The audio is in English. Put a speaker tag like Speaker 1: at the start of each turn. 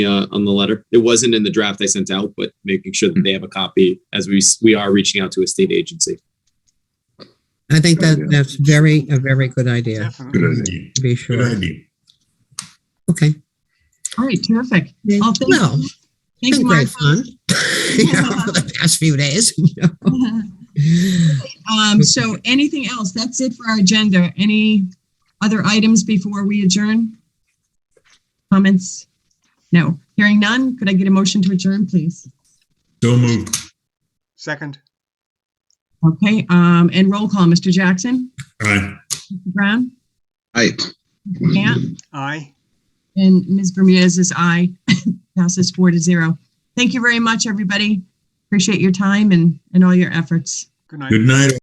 Speaker 1: uh, on the letter. It wasn't in the draft I sent out, but making sure that they have a copy as we s- we are reaching out to a state agency.
Speaker 2: I think
Speaker 3: Good
Speaker 2: that
Speaker 3: idea.
Speaker 2: that's very, a very good idea,
Speaker 3: Good idea.
Speaker 2: to be
Speaker 3: Good
Speaker 2: sure.
Speaker 3: idea.
Speaker 2: Okay.
Speaker 4: All right, terrific. Oh, thank
Speaker 2: Well,
Speaker 4: you.
Speaker 2: it's
Speaker 4: Thank
Speaker 2: been
Speaker 4: you,
Speaker 2: great
Speaker 4: Martha.
Speaker 2: fun. You know, for the past few days.
Speaker 4: Um, so anything else? That's it for our agenda. Any other items before we adjourn? Comments? No. Hearing none, could I get a motion to adjourn, please?
Speaker 3: So moved.
Speaker 5: Second,
Speaker 4: Okay, um, and roll call, Mr. Jackson,
Speaker 3: Aye.
Speaker 4: Mr. Brown,
Speaker 6: Aye.
Speaker 4: yeah,
Speaker 5: aye.
Speaker 4: and Ms. Bermudez is aye. Passes four to zero. Thank you very much, everybody. Appreciate your time and, and all your efforts.
Speaker 5: Good night.
Speaker 3: Good night.